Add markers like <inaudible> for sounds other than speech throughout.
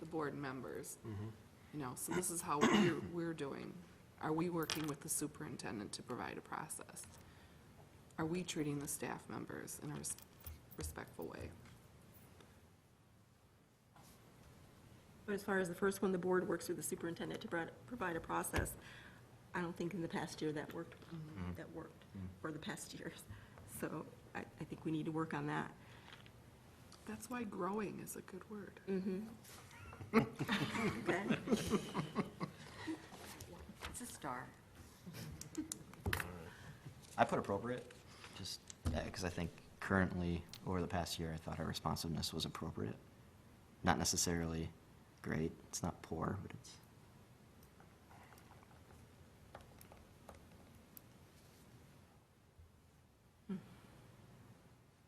the board members. Mm-hmm. You know, so this is how we're, we're doing. Are we working with the superintendent to provide a process? Are we treating the staff members in a res- respectful way? But as far as the first one, the board works with the superintendent to provide- provide a process. I don't think in the past year that worked, that worked, or the past <laughs> years. So I, I think we need to work on that. That's why growing is a good word. <laughs> Okay? It's a star. I put appropriate, just, because I think currently, over the past year, I thought our responsiveness was appropriate. Not necessarily great, it's not poor, but it's,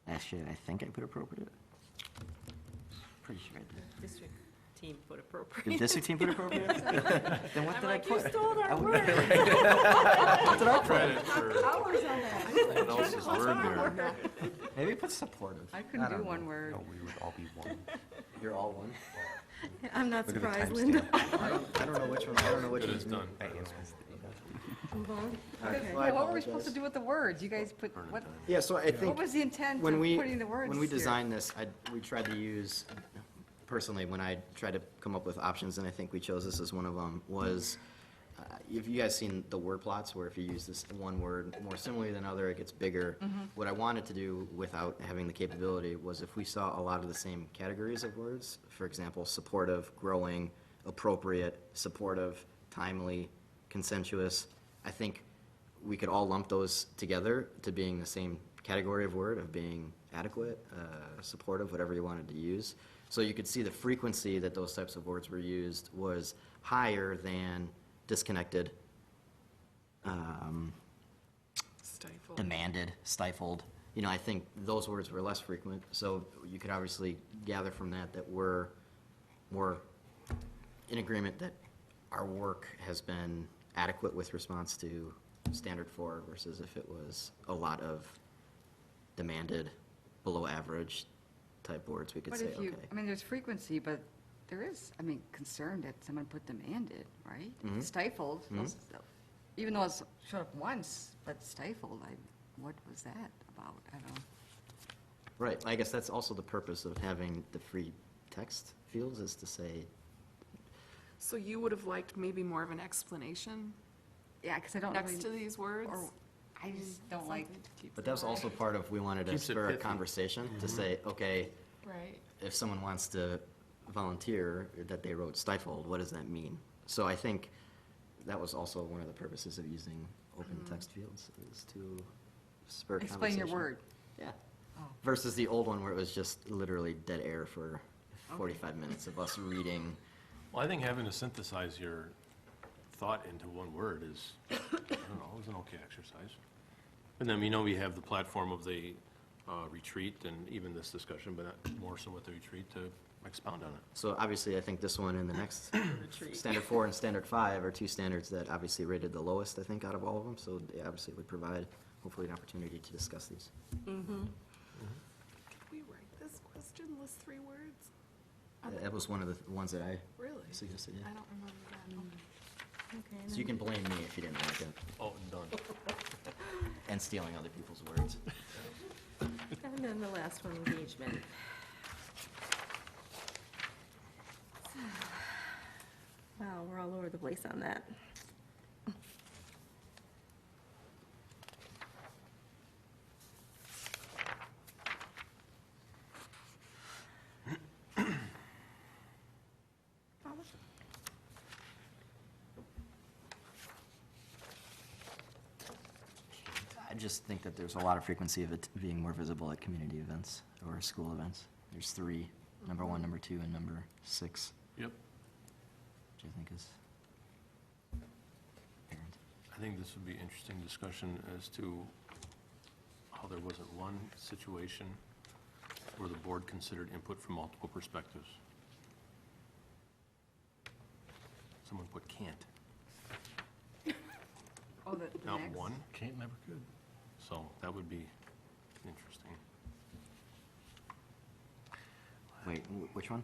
actually, I think I put appropriate. Pretty sure I did. District team put appropriate. Did <laughs> district team put appropriate? Then what did I put? stole I our would- word. Credit for Hours on that. someone else's word there. Maybe put supportive. I couldn't don't do know. one word. No, we would all be one. You're all one. I'm not Look at the surprised, Linda. <laughs> timestamp. I don't, I don't know which one, I don't know which It one's is done. me. I answered. Move on. Okay, Well, I What were we supposed apologize. to do with the words? You guys put, what, Yeah, so I think. what was the intent of When we, putting the words when we here? designed this, I, we tried to use, personally, when I tried to come up with options, and I think we chose this as one of them, was, uh, if you guys seen the word plots, where if you use this one word more similarly than other, it gets bigger. Mm-hmm. What I wanted to do without having the capability was if we saw a lot of the same categories of words, for example, supportive, growing, appropriate, supportive, timely, consensuous, I think we could all lump those together to being the same category of word of being adequate, uh, supportive, whatever you wanted to use. So you could see the frequency that those types of words were used was higher than disconnected, um, Stifle. demanded, stifled. You know, I think those words were less frequent, so you could obviously gather from that that we're more in agreement that our work has been adequate with response to standard four versus if it was a lot of demanded, below average type words, we could But say, if okay. you, I mean, there's frequency, but there is, I mean, concern that someone put demanded, right? Mm-hmm. Stifled, was- even though it's showed up once, but stifled, I, what was that about? I don't know. Right, I guess that's also the purpose of having the free text fields is to say, So you would have liked maybe more of an explanation Yeah, because I don't really. next to these words? or- I just don't Mm, like, Something to keep but that was them also part of, we wanted to Keeps it spur a pithy. Mm-hmm. conversation, to say, okay, Right. if someone wants to volunteer that they wrote stifled, what does that mean? So I think that was also one of the purposes of using open text fields is to spur conversation. Mm-hmm. explain your word. Yeah. Oh. Versus the old one where it was just literally dead air for forty-five minutes of us reading. Well, I think having to synthesize your thought into one word is, I don't know, is an okay exercise. And then, we know, we have the platform of the uh, retreat and even this discussion, but not more so with the retreat to expound on it. So obviously, I think this one <coughs> and the next, standard four and standard five are two standards that obviously rated the lowest, I think, out of all of them. So they obviously would provide hopefully an opportunity to discuss these. Mm-hmm. Could we write this question, list three words? Uh, That was one of the th- ones that I Really? suggested, yeah. I don't remember that. Mm. Okay. So you can blame me if you didn't like it, Oh, done. and stealing other people's words. And then the last one, engagement. Wow, we're all over the place on that. I just think that there's a lot of frequency of it being more visible at community events or school events. There's three, number one, number two, and number six, Yep. which I think is apparent. I think this would be interesting discussion as to how there wasn't one situation where the board considered input from multiple perspectives. Someone put can't, Oh, the the not next? one. Can't never could. So that would be interesting. Wait, wh- which one?